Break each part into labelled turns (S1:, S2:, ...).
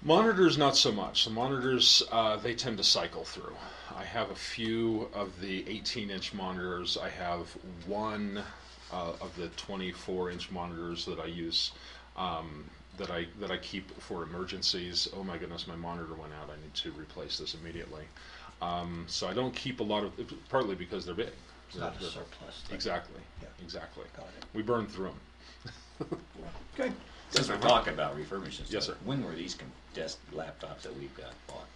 S1: Monitors, not so much. The monitors, uh, they tend to cycle through. I have a few of the 18 inch monitors. I have one uh, of the 24 inch monitors that I use um, that I that I keep for emergencies. Oh my goodness, my monitor went out. I need to replace this immediately. Um, so I don't keep a lot of, partly because they're big.
S2: It's not a
S1: They're- they're-
S2: surplus. thing.
S1: Exactly.
S2: Yeah.
S1: Exactly.
S2: Got it.
S1: We burn through them.
S2: Good.
S3: Since we're talking about refurbishing stuff.
S1: Yes, sir.
S3: When were these com- desk laptops that we've got bought?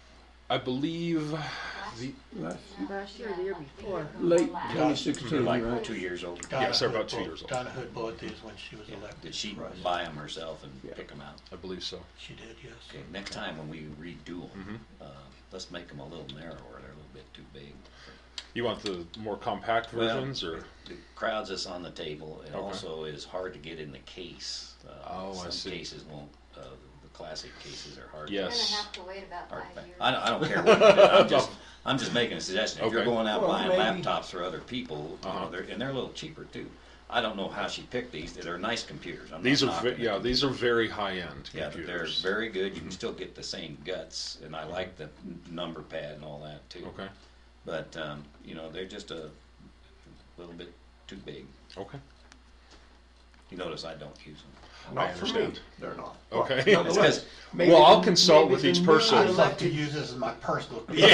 S1: I believe the
S4: Last-
S5: Last year, the year before.
S4: Late
S2: Yeah.
S4: twenty
S3: They're
S4: sixteen,
S3: like two
S4: right?
S3: years old.
S2: Donna
S1: Yes, they're
S2: Hood
S1: about two
S2: bought-
S1: years old.
S2: Donna Hood bought these when she was elected.
S3: Did she
S2: for us.
S3: buy them herself and
S4: Yeah.
S3: pick them out?
S1: I believe so.
S2: She did, yes.
S3: Okay, next time when we redo them,
S1: Mm-hmm.
S3: uh, let's make them a little narrower, they're a little bit too big.
S1: You want the more compact
S3: Well,
S1: versions, or
S3: It crowds us on the table, and
S1: Okay.
S3: also is hard to get in the case. Uh,
S1: Oh, I see.
S3: Some cases won't, uh, the classic cases are hard.
S1: Yes.
S5: You're gonna have to wait about
S3: hard
S5: five
S3: to-
S5: years.
S3: I don't, I don't care what you do, I'm just, I'm just making a suggestion, if you're
S1: Okay.
S3: going out
S4: Well,
S3: buying
S4: maybe-
S3: laptops for other people, you
S1: Uh-huh.
S3: know, they're, and they're a little cheaper too. I don't know how she picked these, they're nice computers, I'm not
S1: these are
S3: knocking
S1: ve-
S3: the
S1: yeah
S3: computers.
S1: these are very high end
S3: Yeah, but they're
S1: computers. Mm-hmm.
S3: very good. You can still get the same guts, and I like the n- number pad and all that too.
S1: okay.
S3: But um, you know, they're just a little bit too big.
S1: Okay.
S3: You notice I don't use them.
S1: I understand.
S4: They're not.
S1: Okay.
S3: It's 'cause-
S4: Maybe
S1: well, I'll
S4: the-
S1: consult
S4: maybe
S1: with
S4: the
S1: each
S4: new
S2: I
S1: person.
S4: item-
S2: love to use this as my personal.
S3: but if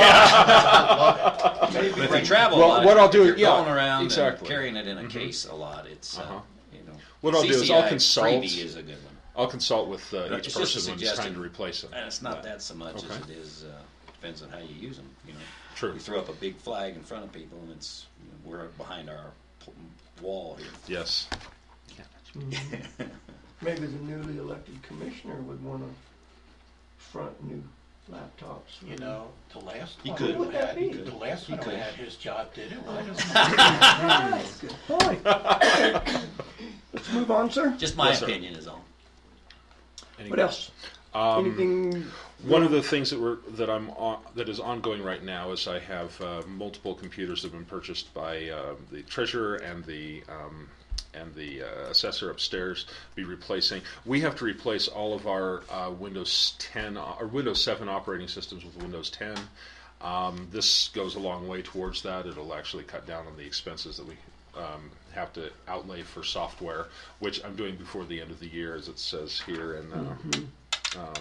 S3: you travel
S1: Well,
S3: a lot,
S1: what I'll
S3: if
S1: do-
S3: you're
S1: yeah,
S3: going around
S1: exactly.
S3: and carrying it in a case a lot, it's uh,
S1: Mm-hmm. Uh-huh.
S3: you know.
S1: What I'll do is I'll
S3: CCI
S1: consult-
S3: Freebie is a good one,
S1: I'll consult with uh,
S3: It's
S1: each
S3: just a
S1: person when it's time
S3: suggestion.
S1: to replace them.
S3: and it's not that so much as
S1: Okay.
S3: it is uh, depends on how you use them. You know,
S1: True.
S3: You throw up a big flag in front of people, and it's you know, we're behind our p- wall here.
S1: Yes.
S4: Maybe the newly elected commissioner would wanna front new laptops.
S2: You know, the last
S3: He
S2: one
S3: could.
S2: we had,
S4: He
S3: could.
S2: the last
S3: He
S2: one we
S3: could.
S2: had, his job did it. Why don't
S4: Good point. Let's move on, sir.
S3: Just my
S1: Yes, sir.
S3: opinion is all.
S1: Any-
S4: What else? Anything,
S1: One of the things that we're that I'm on, that is ongoing right now is I have uh, multiple computers that have been purchased by uh, the treasurer and the um, and the uh, assessor upstairs. Be replacing. We have to replace all of our uh, Windows 10 o- or Windows 7 operating systems with Windows 10. Um, this goes a long way towards that. It'll actually cut down on the expenses that we um, have to outlay for software, which I'm doing before the end of the year, as it says here. And uh,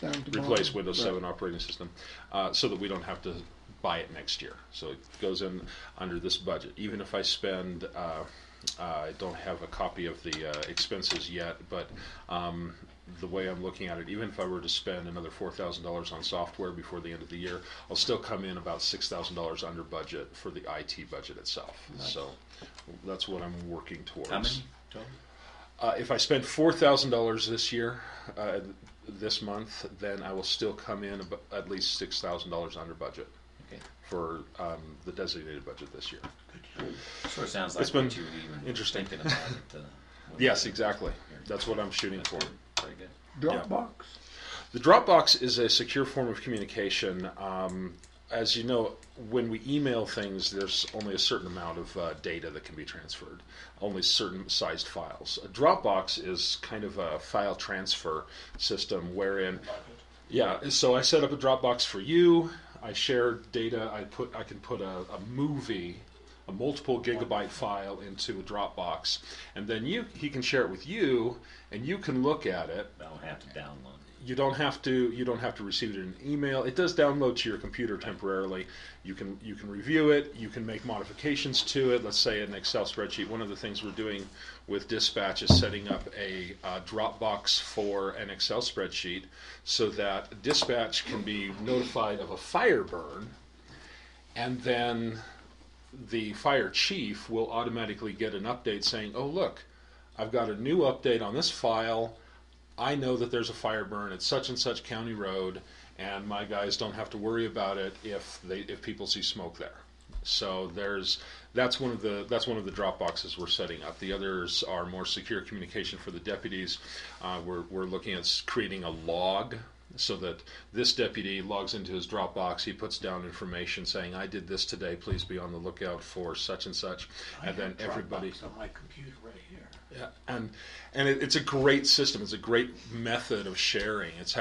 S4: down to
S1: replace
S4: bottom.
S1: Windows
S4: Right.
S1: 7 operating system uh, so that we don't have to buy it next year. So it goes in under this budget. Even if I spend, uh, uh, I don't have a copy of the uh, expenses yet, but um, the way I'm looking at it, even if I were to spend another $4,000 on software before the end of the year, I'll still come in about $6,000 under budget for the IT budget itself. So that's what I'm working towards.
S3: How many total?
S1: Uh, if I spend four thousand dollars this year, uh, this month, then I will still come in ab- at least six thousand dollars under budget
S3: Okay.
S1: for um, the designated budget this year.
S3: Sort of sounds like
S1: It's been
S3: what you were even
S1: interesting.
S3: thinking about it. Uh, when
S1: Yes,
S3: you-
S1: exactly. That's what I'm shooting for.
S3: Very good.
S4: Dropbox.
S1: The Dropbox is a secure form of communication. Um, as you know, when we email things, there's only a certain amount of uh, data that can be transferred, only certain sized files. A Dropbox is kind of a file transfer system wherein Yeah, so I set up a Dropbox for you. I share data. I put I can put a, a movie, a multiple gigabyte file into a Dropbox, and then you he can share it with you, and you can look at it.
S3: I don't have to download it.
S1: You don't have to you don't have to receive it in an email. It does download to your computer temporarily. You can you can review it. You can make modifications to it. Let's say an Excel spreadsheet. One of the things we're doing with Dispatch is setting up a uh, Dropbox for an Excel spreadsheet so that dispatch can be notified of a fire burn, and then the fire chief will automatically get an update saying, "Oh, look, I've got a new update on this file. I know that there's a fire burn at such and such county road, and my guys don't have to worry about it if they if people see smoke there." So there's that's one of the that's one of the drop boxes we're setting up. The others are more secure communication for the deputies. Uh, we're we're looking at s- creating a log so that this deputy logs into his Dropbox, he puts down information saying, "I did this today. Please be on the lookout for such and such,"
S2: I
S1: and then
S2: have
S1: everybody.
S2: Dropbox On my computer right here.
S1: Yeah, and and it, it's a great system. It's a great method of sharing. It's